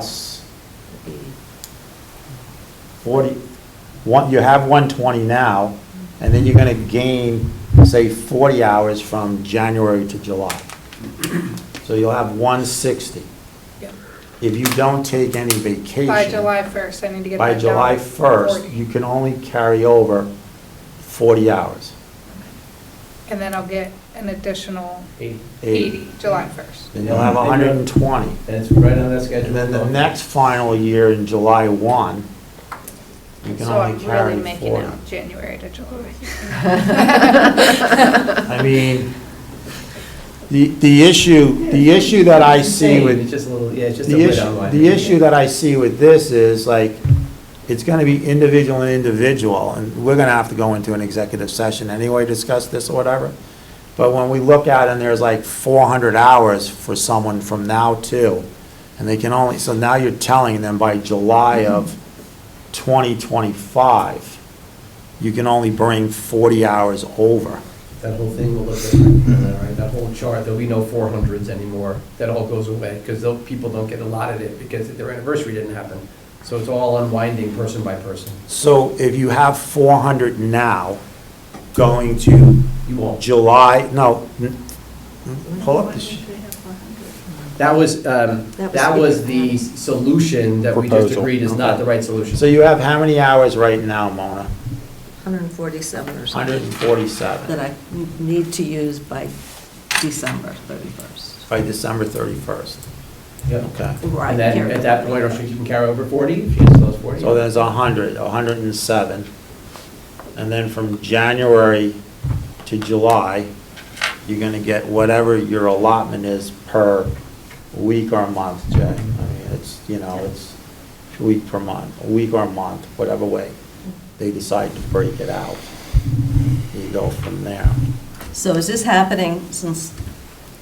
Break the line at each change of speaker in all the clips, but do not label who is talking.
plus forty, one, you have one twenty now, and then you're gonna gain, say, forty hours from January to July. So you'll have one sixty.
Yep.
If you don't take any vacation.
By July 1st, I need to get that
By
down.
July
to
1st,
40.
you can only carry over 40 hours.
And then I'll get an additional
Eight.
80, July 1st.
Then you'll have 120.
And it's right on that schedule.
And then the next final year in July 1, you can
So I'm
only carry
really making
40.
out January to July.
I mean, the, the issue, the issue that I see with
It's just a little, yeah, it's just a
The
bit
issue,
outline.
the issue that I see with this is like, it's gonna be individual and individual, and we're gonna have to go into an executive session anyway, discuss this or whatever. But when we look at, and there's like four hundred hours for someone from now to, and they can only, so now you're telling them by July of twenty twenty-five, you can only bring forty hours over.
That whole thing will look different, than that, right? That whole chart, there'll be no four hundreds anymore. That all goes away, because people don't get allotted it, because their anniversary didn't happen. So it's all unwinding person by person.
So if you have four hundred now, going to
You won't.
July, no, n- n- pull up the, sh-
That was, um,
That
that
was-
was the solution that we just
Proposal.
agreed is not the right solution.
so you have how many hours right now, Mona?
147 or
Hundred
something
and
that
forty-seven
I need to use by December 31st.
by December thirty-first,
Yep.
okay.
Right.
And then at that point, or she can carry over forty, if she has those forty.
So there's a hundred, a hundred and seven. And then from January to July, you're gonna get whatever your allotment is per week or month, Jay. I mean, it's, you know, it's a week per month, a week or month, whatever way they decide to break it out. You go from there.
So is this happening, since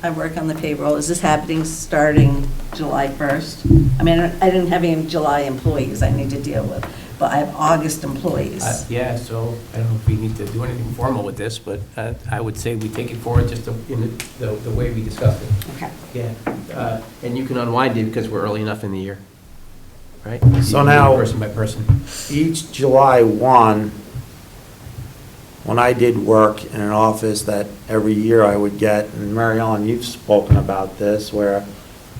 I work on the payroll, is this happening starting July 1st? I mean, I didn't have any July employees I need to deal with, but I have August
Uh,
employees.
Yeah, so I don't know if we need to do anything formal with this, but uh, I would say we take it forward just the- in the, the way we discussed it.
Okay.
Yeah. uh, And you can unwind it because we're early enough in the year, right?
So
You can do it
now-
Person by person.
each July 1, when I did work in an office that every year I would get, and Mary Ellen, you've spoken about this, where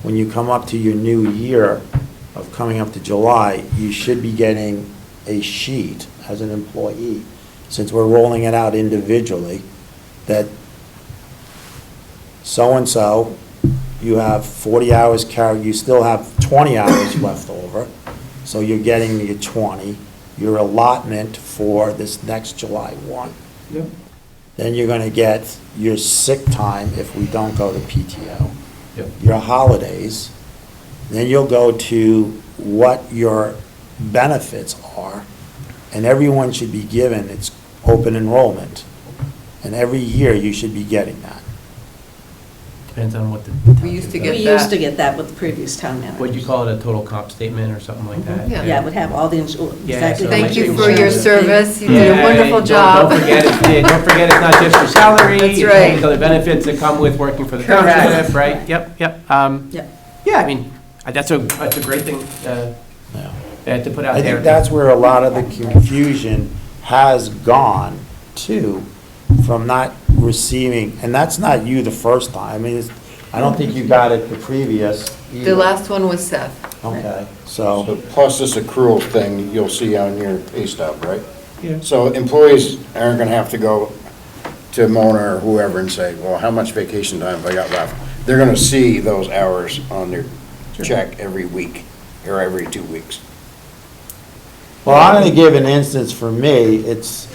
when you come up to your new year of coming up to July, you should be getting a sheet as an employee, since we're rolling it out individually, that so-and-so, you have 40 hours carried, you still have 20 hours left over, so you're getting your 20, your allotment for this next July 1.
Yep.
Then you're going to get your sick time if we don't go to PTO,
Yep.
your holidays, then you'll go to what your benefits are, and everyone should be given its open enrollment. And every year, you should be getting that.
Depends on what the.
We used to
We
Get
used to
that.
get that with the previous town manager.
What'd you call it, a total comp statement or something like that?
Yeah.
Yeah, it would have all the, insu-
Yeah,
exactly.
so
what
Thank
much
the
you for your
insurance-
service. You did a
Yeah,
wonderful
don't-
job.
Don't forget, it's- yeah, don't forget, it's not just your salary.
That's
it's all
right.
The other benefits that come with working for the
Correct.
township, right? Yep, yep. Um,
Yep.
Yeah, I mean, uh, that's a, that's a great thing uh,
Yeah.
uh, to put out
I
there.
think that's where a lot of the confusion has gone to, from not receiving, and that's not you the first time, I mean, it's, I don't think you got it the previous either.
The last one was Seth.
Okay,
So
so,
plus this accrual thing you'll see on your pay stub, right?
Yeah.
So employees aren't gonna have to go to Mona or whoever and say, well, how much vacation time have I got left? They're gonna see those hours on their check every week or every two weeks.
well, I'm gonna give an instance for me, it's,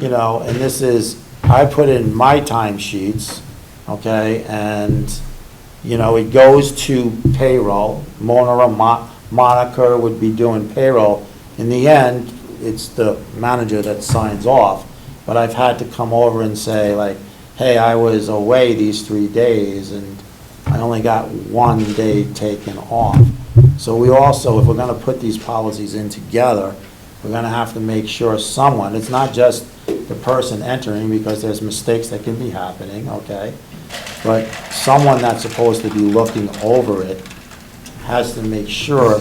you know, and this is, I put in my time sheets, okay, and, you know, it goes to payroll, Mona, or Mo- Monica would be doing payroll. In the end, it's the manager that signs off, but I've had to come over and say like, hey, I was away these three days, and I only got one day taken off. So we also, if we're gonna put these policies in together, we're gonna have to make sure someone, it's not just the person entering, because there's mistakes that can be happening, okay? But someone that's supposed to be looking over it has to make sure